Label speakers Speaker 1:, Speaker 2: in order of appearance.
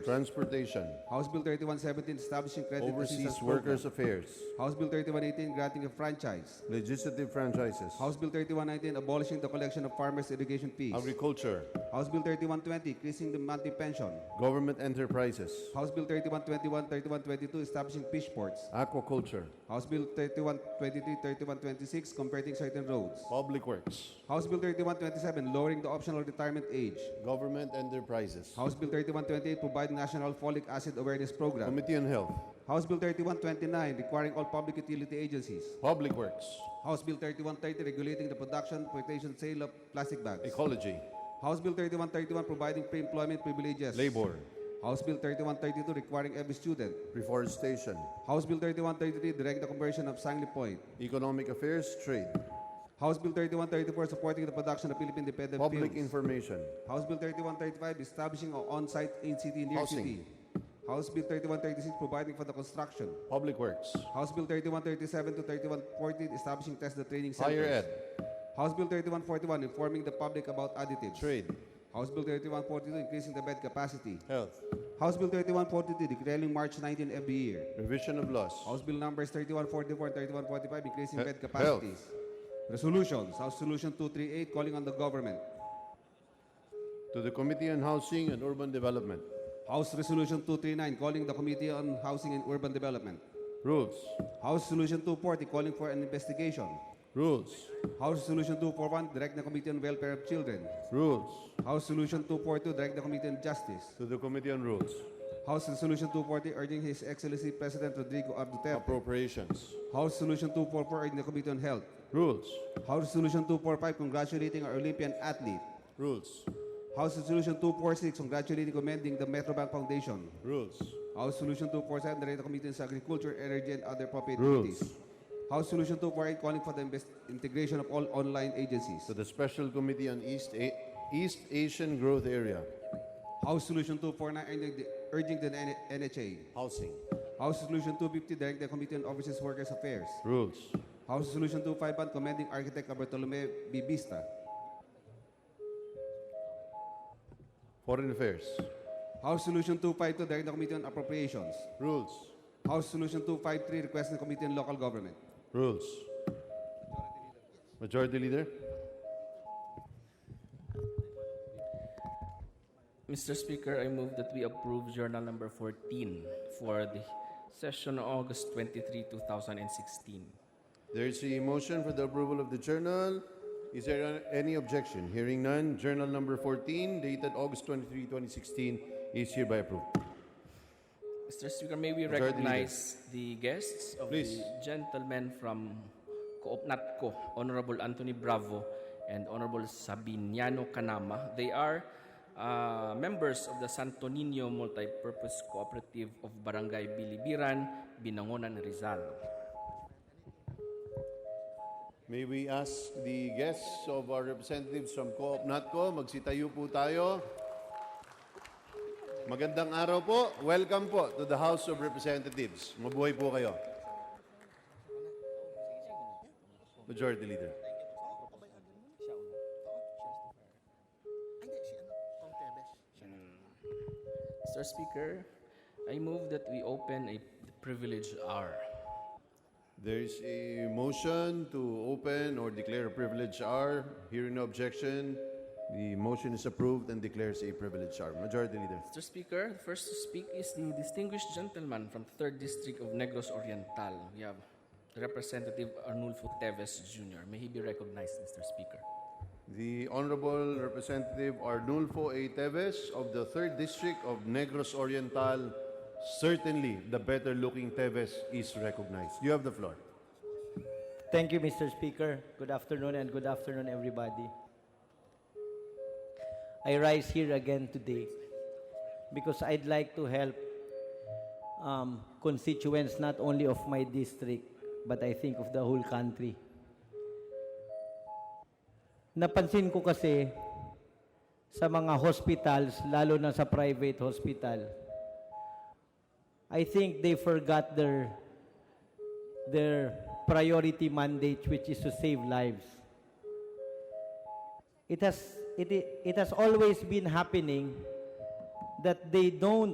Speaker 1: Transportation,
Speaker 2: House Bill 3117 establishing credit
Speaker 1: Overseas
Speaker 2: assistance program.
Speaker 1: Workers Affairs,
Speaker 2: House Bill 3118 granting a franchise.
Speaker 1: Legislative Franchises,
Speaker 2: House Bill 3119 abolishing the collection of farmers' education fees.
Speaker 1: Agriculture,
Speaker 2: House Bill 3120 increasing the monthly pension.
Speaker 1: Government Enterprises,
Speaker 2: House Bill 3121, 3122 establishing fish ports.
Speaker 1: Aquaculture,
Speaker 2: House Bill 3123, 3126 converting certain roads.
Speaker 1: Public Works,
Speaker 2: House Bill 3127 lowering the optional retirement age.
Speaker 1: Government Enterprises,
Speaker 2: House Bill 3128 providing national folic acid awareness program.
Speaker 1: Committee on Health,
Speaker 2: House Bill 3129 requiring all public utility agencies.
Speaker 1: Public Works,
Speaker 2: House Bill 3130 regulating the production, importation, sale of plastic bags.
Speaker 1: Ecology,
Speaker 2: House Bill 3131 providing pre-employment privileges.
Speaker 1: Labor,
Speaker 2: House Bill 3132 requiring every student.
Speaker 1: Reforestation,
Speaker 2: House Bill 3133 direct the conversion of Sangley Point.
Speaker 1: Economic Affairs, Trade,
Speaker 2: House Bill 3134 supporting the production of Philippine independent
Speaker 1: Public
Speaker 2: films.
Speaker 1: Information,
Speaker 2: House Bill 3135 establishing an on-site in city near
Speaker 1: Housing.
Speaker 2: city. House Bill 3136 providing for the construction.
Speaker 1: Public Works,
Speaker 2: House Bill 3137 to 3140 establishing test the training centers.
Speaker 1: Higher Ed,
Speaker 2: House Bill 3141 informing the public about additives.
Speaker 1: Trade,
Speaker 2: House Bill 3142 increasing the bed capacity.
Speaker 1: Health,
Speaker 2: House Bill 3142 declaring March 19 every year.
Speaker 1: Revision of Laws,
Speaker 2: House Bill numbers 3144 and 3145 increasing
Speaker 1: He-
Speaker 2: bed
Speaker 1: health.
Speaker 2: capacities. Resolutions. House Solution 238 calling on the government.
Speaker 1: to the Committee on Housing and Urban Development,
Speaker 2: House Resolution 239 calling the Committee on Housing and Urban Development.
Speaker 1: Rules,
Speaker 2: House Solution 240 calling for an investigation.
Speaker 1: Rules,
Speaker 2: House Solution 241 direct the Committee on Welfare of Children.
Speaker 1: Rules,
Speaker 2: House Solution 242 direct the Committee on Justice.
Speaker 1: to the Committee on Rules,
Speaker 2: House Resolution 240 urging His Excellency President Rodrigo R. Duterte.
Speaker 1: Appropriations,
Speaker 2: House Solution 244 urging the Committee on Health.
Speaker 1: Rules,
Speaker 2: House Resolution 245 congratulating our Olympian athlete.
Speaker 1: Rules,
Speaker 2: House Resolution 246 congratulating commending the Metrobank Foundation.
Speaker 1: Rules,
Speaker 2: House Solution 247 direct the Committee on Agriculture, Energy and other appropriate
Speaker 1: Rules.
Speaker 2: committees. House Solution 248 calling for the invest- integration of all online agencies.
Speaker 1: to the Special Committee on East, A- East Asian Growth Area,
Speaker 2: House Solution 249 urging the- urging the N- NHA.
Speaker 1: Housing,
Speaker 2: House Solution 250 direct the Committee on Overseas Workers Affairs.
Speaker 1: Rules,
Speaker 2: House Solution 251 commending architect Bartolome Bibista.
Speaker 1: Foreign Affairs,
Speaker 2: House Solution 252 direct the Committee on Appropriations.
Speaker 1: Rules,
Speaker 2: House Solution 253 requesting the Committee on Local Government.
Speaker 1: Rules. Majority Leader,
Speaker 3: Mr. Speaker, I move that we approve Journal Number 14 for the session August 23, 2016.
Speaker 1: there is a motion for the approval of the journal. Is there any objection? Hearing none, Journal Number 14, dated August 23, 2016, is hereby approved.
Speaker 3: Mr. Speaker, may we
Speaker 1: Majority
Speaker 3: recognize the guests of
Speaker 1: Please.
Speaker 3: the gentlemen from Coopnatco, Honorable Anthony Bravo and Honorable Sabiniano Kanama. They are uh, members of the Santo Niño Multipurpose Cooperative of Barangay Bilibiran, Binangonan, Rizal.
Speaker 1: May we ask the guests of our representatives from Co-op NATCO, magsitayo po tayo. Magandang araw po. Welcome po to the House of Representatives. Mabuhay po kayo. Majority Leader.
Speaker 3: Mr. Speaker, I move that we open a privilege hour.
Speaker 1: There is a motion to open or declare a privilege hour. Hearing no objection, the motion is approved and declares a privilege hour. Majority Leader.
Speaker 3: Mr. Speaker, the first to speak is the distinguished gentleman from the 3rd District of Negros Oriental. We have Representative Arnulfo Teves Jr. May he be recognized, Mr. Speaker.
Speaker 1: The Honorable Representative Arnulfo A. Teves of the 3rd District of Negros Oriental. Certainly, the better looking Teves is recognized. You have the floor.
Speaker 4: Thank you, Mr. Speaker. Good afternoon and good afternoon, everybody. I rise here again today because I'd like to help um, constituents not only of my district, but I think of the whole country. Napansin ko kasi sa mga hospitals, lalo na sa private hospital, I think they forgot their their priority mandate, which is to save lives. It has, it, i- it has always been happening that they don't